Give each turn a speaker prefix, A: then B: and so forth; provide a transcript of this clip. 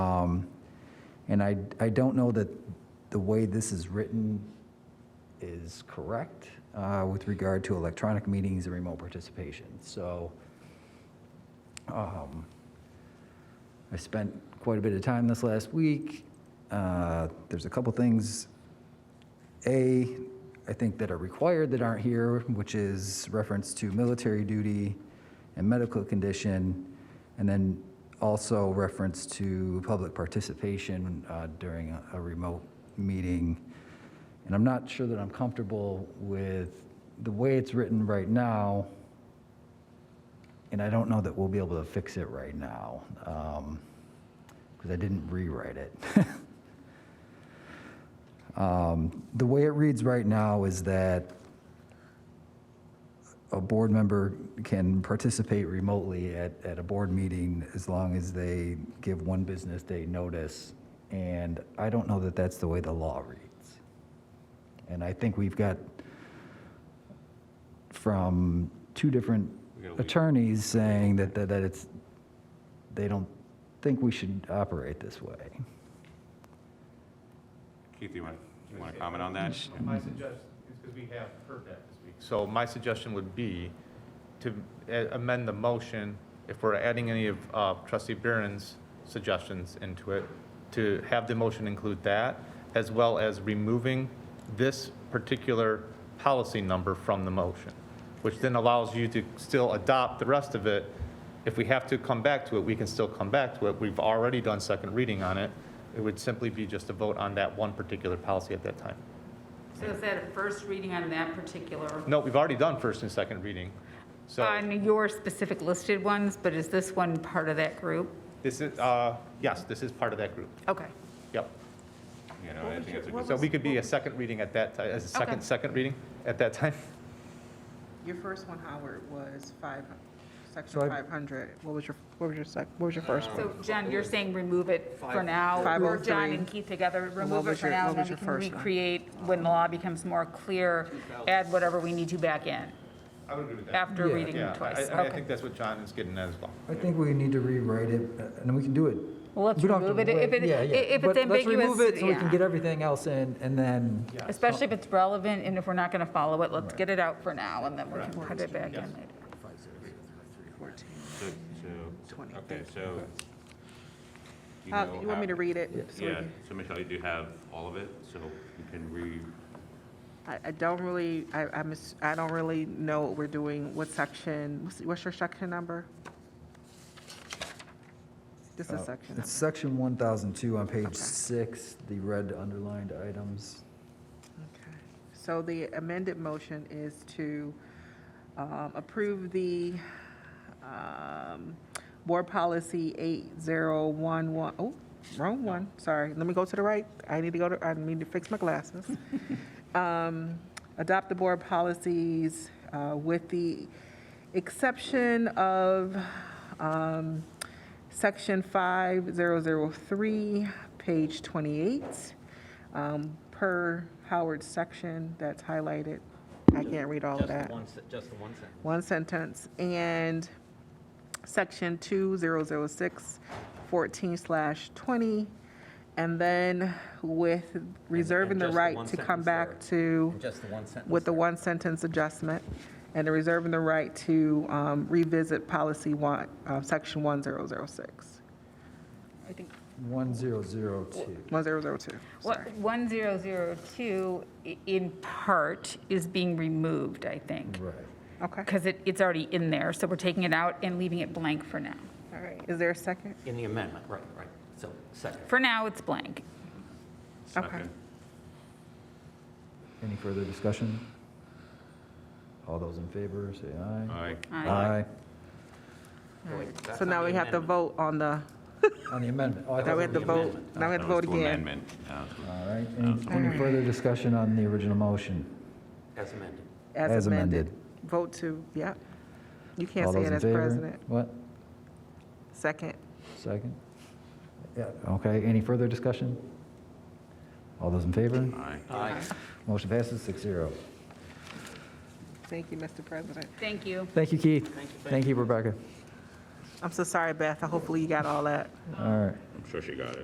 A: Um, And I, I don't know that the way this is written is correct uh, with regard to electronic meetings and remote participation. So um, I spent quite a bit of time this last week. Uh, There's a couple things a, I think that are required that aren't here, which is reference to military duty and medical condition, and then also reference to public participation uh, during a- a remote meeting. And I'm not sure that I'm comfortable with the way it's written right now, and I don't know that we'll be able to fix it right now, because I didn't rewrite it. Um, The way it reads right now is that a board member can participate remotely at, at a board meeting as long as they give one business day notice. And I don't know that that's the way the law reads. And I think we've got from two different
B: We gotta leave.
A: attorneys saying that, that that it's, they don't think we should operate this way.
B: Keith, you want, you want to comment on that?
C: My suggestion, is because we have heard that this week. So my suggestion would be to a- amend the motion, if we're adding any of uh, trustee Burin's suggestions into it, to have the motion include that, as well as removing this particular policy number from the motion, which then allows you to still adopt the rest of it. If we have to come back to it, we can still come back to it. We've already done second reading on it. It would simply be just a vote on that one particular policy at that time.
D: So is that a first reading on that particular?
C: No, we've already done first and second reading. So
D: On your specific listed ones, but is this one part of that group?
C: this is, uh, yes, this is part of that group.
D: Okay.
C: Yep.
B: You know, I think it's a good,
C: So we could be a second reading at that, ti- as a second,
D: Okay.
C: second reading at that time.
E: Your first one, Howard, was five,
A: So I-
E: section five hundred. What was your, what was your sec, what was your first
B: Um,
E: one?
D: So Jen, you're saying remove it for now?
E: Five
D: Or
E: oh
D: John
E: three.
D: and Keith together,
E: what
D: remove it
E: was
D: for
E: your-
D: now,
E: what
D: and then
E: was
D: we
E: your
D: can
E: first one?
D: recreate when the law becomes more clear, add whatever we need to back in
C: I would agree with
D: after
A: Yeah.
D: reading
C: Yeah,
D: it
C: I- I,
D: twice.
C: I mean, I
D: Okay.
C: think that's what John is getting at as well.
A: I think we need to rewrite it, uh, and we can do it.
D: Well, let's
A: We don't have to
D: remove it. If
A: wait.
D: it-
A: Yeah, yeah.
D: if it's
A: But Let's remove
D: ambiguous,
A: it so we can
D: yeah.
A: get everything else in, and then,
D: Especially if it's relevant and if we're not going to follow it, let's get it out for now and then we can put it back in later.
E: Fourteen.
B: so, so-
E: Twenty.
B: okay, so. you
E: Uh,
B: know
E: you want
B: how-
E: me to read it? So we
B: Yeah,
E: can-
B: so Michelle, you do have all of it, so you can re,
E: I, I don't really, I, I miss, I don't really know what we're doing, what section, what's, what's your section number? This is section number.
A: uh, it's section 1002 on page six, the red underlined items.
E: Okay. So the amended motion is to um, approve the um, board policy 8011, oh, wrong one, sorry. Let me go to the right. I need to go to, I need to fix my glasses. Um, Adopt the board policies uh, with the exception of um, section 5003, page 28 um, per Howard's section that's highlighted. I can't read all of
F: Just the
E: that.
F: one, se- just the one sentence.
E: One sentence. And section 2006, 14 slash 20. And then with reserving the
F: just the
E: right
F: one
E: to come
F: sentence there.
E: back to,
F: And Just the one sentence.
E: with the one sentence adjustment, and the reserving the right to um, revisit policy one, uh, section 1006,
D: I think
A: 1002.
E: 1002, sorry.
D: What, 1002 i- in part is being removed, I think.
A: Right.
E: Okay,
D: Because it, it's already in there, so we're taking it out and leaving it blank for now.
E: all right. Is there a second?
F: In the amendment, right, right. So second.
D: For now, it's blank.
B: second.
A: Any further discussion? All those in favor, say
B: All
A: aye.
B: right,
D: Aye.
F: Oh, wait, that's
E: So
F: on
E: now
F: the
E: we have to
F: amendment.
E: vote on the,
A: On the amendment. Oh, I
E: now
A: thought
E: we
A: we
E: have to
A: were-
E: vote, now we have to vote again.
B: Amendment. uh, so-
A: All right, any- any further discussion on the original motion?
F: As amended.
A: As
E: As
A: amended.
E: amended. Vote to, yep. You can't
A: All
E: say
A: those
E: it
A: in
E: as
A: favor?
E: president.
A: What?
E: Second.
A: Second? Yeah, okay, any further discussion? All those in favor?
B: Aye.
F: Aye.
A: Motion passes six zero.
E: Thank you, Mr. President.
D: Thank you.
A: Thank you, Keith.
F: Thank you,
A: Thank you, Rebecca.
E: I'm so sorry, Beth. Hopefully you got all that.
A: All right.
B: I'm sure she got it.